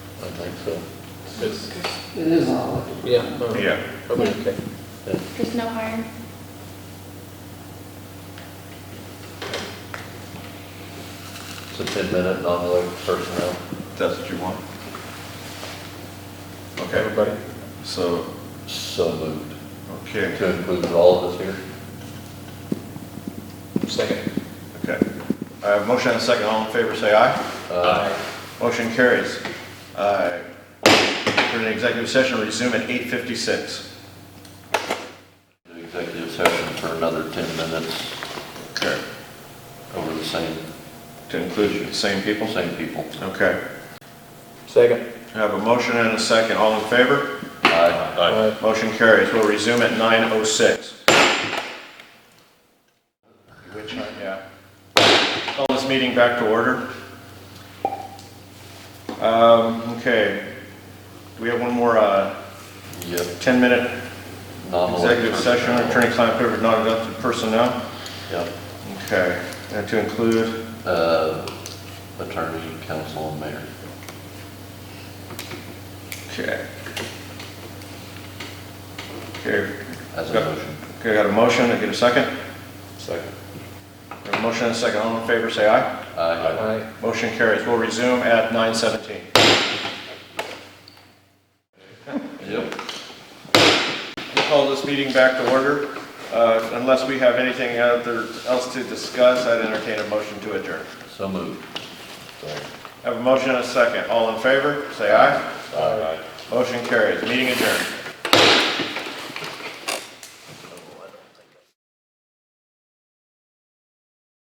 I think so. It's, It is all, yeah, no. Yeah. Probably okay. There's no harm. It's a ten-minute non-elected personnel. That's what you want? Okay, Everybody? so, So moved. okay, To include all of us here. Second. okay. I have a motion and a second, all in favor, say aye. Uh, Motion carries. Uh, We're in executive session, resume at 8:56. do Executive session for another ten minutes Okay, over the same, to include the same people? same people. Okay. Second. I have a motion and a second, all in favor? Aye. Aye. Motion carries, we'll resume at 9:06. Which, uh, yeah. Call this meeting back to order. Um, Okay, do we have one more Yep. 10-minute non-elected executive session, personnel. attorney-client privilege, non-elected personnel? Yep. Okay, and to include, Uh, Attorney, counsel, and mayor. okay. Okay, As a Yep. motion. okay, got a motion, I get a second? Second. Got a motion and a second, all in favor, say aye. Aye. Aye. Motion carries. We'll resume at 9:17. Yep. We'll call this meeting back to order. Uh, Unless we have anything other- else to discuss, I'd entertain a motion to adjourn. So moved. Have a motion and a second. All in favor, say aye. Motion carries. Meeting adjourned.